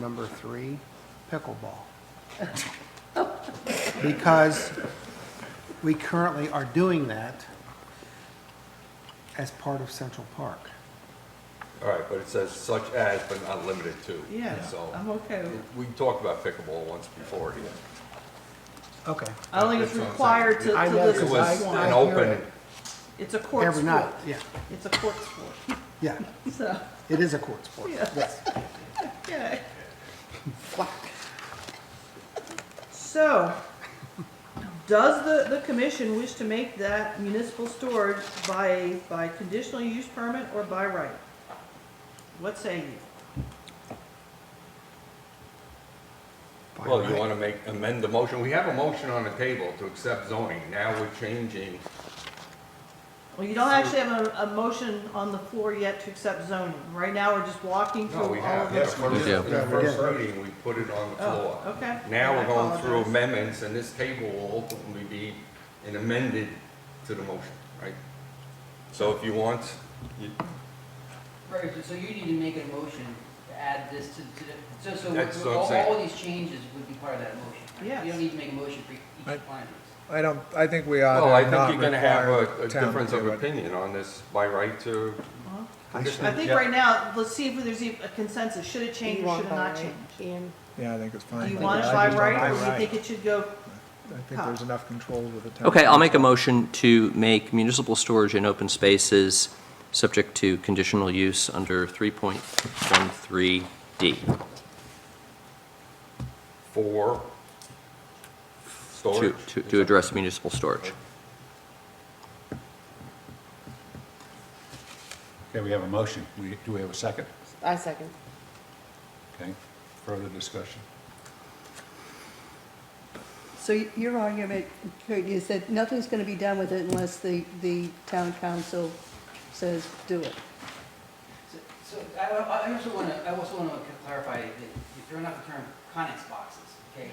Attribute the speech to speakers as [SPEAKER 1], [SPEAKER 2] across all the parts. [SPEAKER 1] Number three, pickleball. Because we currently are doing that as part of Central Park.
[SPEAKER 2] All right, but it says such as, but not limited to.
[SPEAKER 3] Yeah,
[SPEAKER 2] So,
[SPEAKER 3] I'm okay. with-
[SPEAKER 2] we talked about pickleball once before here.
[SPEAKER 1] Okay.
[SPEAKER 3] I don't think it's
[SPEAKER 2] That's what I'm
[SPEAKER 3] required to,
[SPEAKER 2] saying.
[SPEAKER 3] to
[SPEAKER 1] I know,
[SPEAKER 3] this,
[SPEAKER 2] It
[SPEAKER 1] Because I-
[SPEAKER 2] was an
[SPEAKER 1] I hear
[SPEAKER 2] open,
[SPEAKER 1] it.
[SPEAKER 3] it's a court
[SPEAKER 1] Every
[SPEAKER 3] sport.
[SPEAKER 1] night, yeah,
[SPEAKER 3] It's a court sport,
[SPEAKER 1] yeah.
[SPEAKER 3] so,
[SPEAKER 1] It is a court sport.
[SPEAKER 3] Yeah.
[SPEAKER 1] Yes.
[SPEAKER 3] yeah. So, does the, the commission wish to make that municipal storage by, by conditional use permit or by right? What say you?
[SPEAKER 2] well, you want to make, amend the motion. We have a motion on the table to accept zoning. Now we're changing,
[SPEAKER 3] Well, you don't actually have a, a motion on the floor yet to accept zoning. Right now, we're just walking through
[SPEAKER 2] no,
[SPEAKER 3] all
[SPEAKER 2] we have.
[SPEAKER 3] of
[SPEAKER 2] In the
[SPEAKER 3] this.
[SPEAKER 2] first-
[SPEAKER 4] do.
[SPEAKER 2] in the
[SPEAKER 1] Yeah, we did.
[SPEAKER 2] first meeting, we put it on the
[SPEAKER 3] Oh,
[SPEAKER 2] floor.
[SPEAKER 3] okay.
[SPEAKER 2] Now
[SPEAKER 3] I
[SPEAKER 2] we're going through
[SPEAKER 3] apologize.
[SPEAKER 2] amendments, and this table will ultimately be an amended to the motion, right? So if you want, you-
[SPEAKER 5] Right, so- so you need to make a motion to add this to, to, the- so, so
[SPEAKER 2] That's what I'm
[SPEAKER 5] all,
[SPEAKER 2] saying.
[SPEAKER 5] all these changes would be part of that motion. right? You
[SPEAKER 3] Yes.
[SPEAKER 5] don't need to make a motion for each
[SPEAKER 4] Right.
[SPEAKER 5] appliance.
[SPEAKER 4] I don't, I think we ought
[SPEAKER 2] well, I
[SPEAKER 4] to
[SPEAKER 2] think
[SPEAKER 4] not
[SPEAKER 2] you're going to have
[SPEAKER 4] require
[SPEAKER 2] a- a
[SPEAKER 4] the town
[SPEAKER 2] difference
[SPEAKER 4] to
[SPEAKER 2] of
[SPEAKER 4] do it.
[SPEAKER 2] opinion on this by right to
[SPEAKER 1] Uh-huh. I
[SPEAKER 3] I
[SPEAKER 1] should-
[SPEAKER 3] think right now, let's see if there's e- a consensus, should it change or should it not change?
[SPEAKER 4] Yeah, I think it's fine.
[SPEAKER 3] Do you
[SPEAKER 4] I
[SPEAKER 3] want it
[SPEAKER 4] think-
[SPEAKER 3] by
[SPEAKER 4] I just-
[SPEAKER 3] right, Oh. or
[SPEAKER 1] by
[SPEAKER 3] do you
[SPEAKER 1] right.
[SPEAKER 3] think it should go,
[SPEAKER 4] I think there's enough control with the town.
[SPEAKER 6] Okay, I'll make a motion to make municipal storage in open spaces subject to conditional use under 3.13D.
[SPEAKER 2] for
[SPEAKER 6] To,
[SPEAKER 2] storage.
[SPEAKER 6] to, to address municipal storage.
[SPEAKER 7] Okay, we have a motion. We, do we have a second?
[SPEAKER 8] I second.
[SPEAKER 7] Okay, further discussion?
[SPEAKER 9] So y- your argument, Kurt, is that nothing's gonna be done with it unless the, the town council says do it?
[SPEAKER 5] So, so I, I I also wanna, I also wanna clarify that you're throwing out the term conex boxes, okay?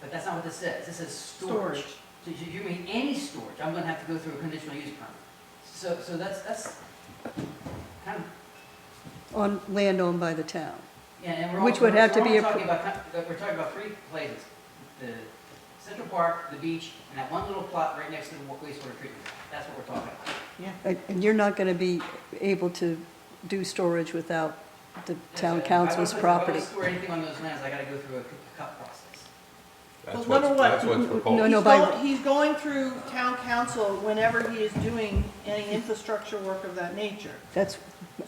[SPEAKER 5] But that's not what this says. This says storage.
[SPEAKER 3] Storage.
[SPEAKER 5] So you, you mean any storage, I'm gonna have to go through a conditional use permit. So, so that's, that's kind of,
[SPEAKER 9] On land owned by the town?
[SPEAKER 5] Yeah, and we're all-
[SPEAKER 9] Which would have to
[SPEAKER 5] we're
[SPEAKER 9] be
[SPEAKER 5] all
[SPEAKER 9] appro-
[SPEAKER 5] talking about, co- we're talking about three places, the Central Park, the beach, and that one little plot right next to the wa- wastewater treatment. That's what we're talking about.
[SPEAKER 3] yeah?
[SPEAKER 9] And and you're not gonna be able to do storage without the town
[SPEAKER 5] If I wanna
[SPEAKER 9] council's
[SPEAKER 5] put- if I wanna
[SPEAKER 9] property?
[SPEAKER 5] store anything on those lands, I gotta go through a c- cut process.
[SPEAKER 2] That's
[SPEAKER 3] Well, number
[SPEAKER 2] what's, that's
[SPEAKER 3] one,
[SPEAKER 2] what's
[SPEAKER 9] n- n-
[SPEAKER 2] proposed.
[SPEAKER 9] Oh, no,
[SPEAKER 3] He's
[SPEAKER 9] no, by-
[SPEAKER 3] go- He's going through town council whenever he is doing any infrastructure work of that nature.
[SPEAKER 9] That's,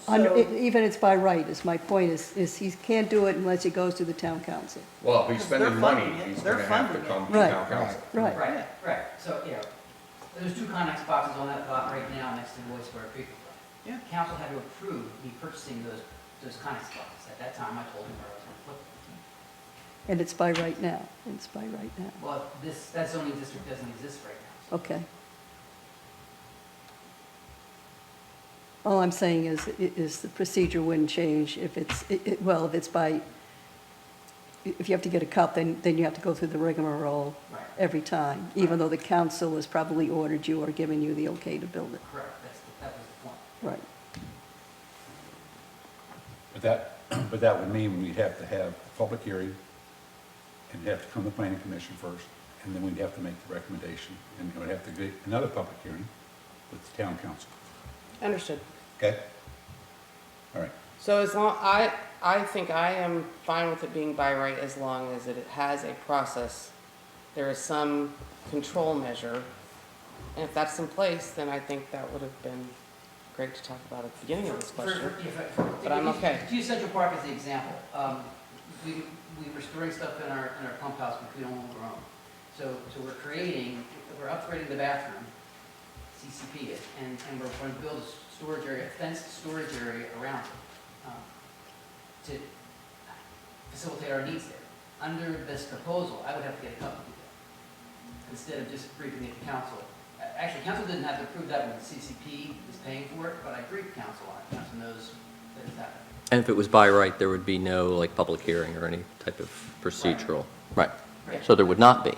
[SPEAKER 9] under-
[SPEAKER 3] So-
[SPEAKER 9] even it's by right, is my point, is, is he can't do it unless it goes to the town council.
[SPEAKER 2] Well, if he's
[SPEAKER 3] Because they're
[SPEAKER 2] spending money,
[SPEAKER 3] funding it.
[SPEAKER 2] he's
[SPEAKER 3] They're
[SPEAKER 2] gonna have to
[SPEAKER 3] funding it.
[SPEAKER 2] come to
[SPEAKER 9] Right.
[SPEAKER 2] town council.
[SPEAKER 9] Right.
[SPEAKER 5] Right, right, so, yeah, there's two Conex boxes on that lot right now next to the wastewater treatment plant.
[SPEAKER 3] Yeah.
[SPEAKER 5] Council had to approve me purchasing those, those Conex boxes. At that time, I told them where I was gonna put them.
[SPEAKER 9] And it's by right now, it's by right now,
[SPEAKER 5] Well, this, that zoning district doesn't exist right now. so-
[SPEAKER 9] okay. All I'm saying is, i- is the procedure wouldn't change if it's, i- i- well, if it's by, if you have to get a cup, then, then you have to go through the rigmarole
[SPEAKER 5] Right.
[SPEAKER 9] every time, even though the council has probably ordered you or given you the okay to build it,
[SPEAKER 5] Correct, that's, the- that was the point.
[SPEAKER 9] right?
[SPEAKER 7] But that, but that would mean we'd have to have a public hearing and have to come to planning commission first, and then we'd have to make the recommendation, and then we'd have to get another public hearing with the town council.
[SPEAKER 8] Understood.
[SPEAKER 7] Okay? All right.
[SPEAKER 8] So as long, I, I think I am fine with it being by right as long as it has a process. There is some control measure. And if that's in place, then I think that would have been great to talk about at the beginning of this
[SPEAKER 5] For- for-
[SPEAKER 8] question.
[SPEAKER 5] yeah, for- for-
[SPEAKER 8] But I'm
[SPEAKER 5] if-
[SPEAKER 8] okay.
[SPEAKER 5] if you Use Central Park as the example. Um, We, we were storing stuff in our, in our pump house, which we don't own. So, so we're creating, we're upgrading the bathroom, CCP it, and, and we're going to build a s- storage area, a fenced storage area around it um, to facilitate our needs there. Under this proposal, I would have to get a company to do that, instead of just briefing it to council uh, Actually, council didn't have to approve that when the CCP is paying for it, but I agree with council on it. Council knows that it's happening.
[SPEAKER 6] And if it was by right, there would be no, like, public hearing or any type of procedural. Right. So there would not be,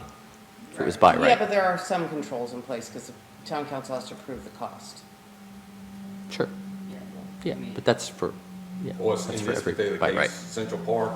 [SPEAKER 6] if it was by
[SPEAKER 8] Yeah,
[SPEAKER 6] right.
[SPEAKER 8] but there are some controls in place because the town council has to approve the cost.
[SPEAKER 6] Sure,
[SPEAKER 5] Yeah.
[SPEAKER 6] yeah, but that's for Yeah,
[SPEAKER 2] Or in
[SPEAKER 6] that's for
[SPEAKER 2] this
[SPEAKER 6] every-
[SPEAKER 2] particular
[SPEAKER 6] by right.
[SPEAKER 2] case, Central Park,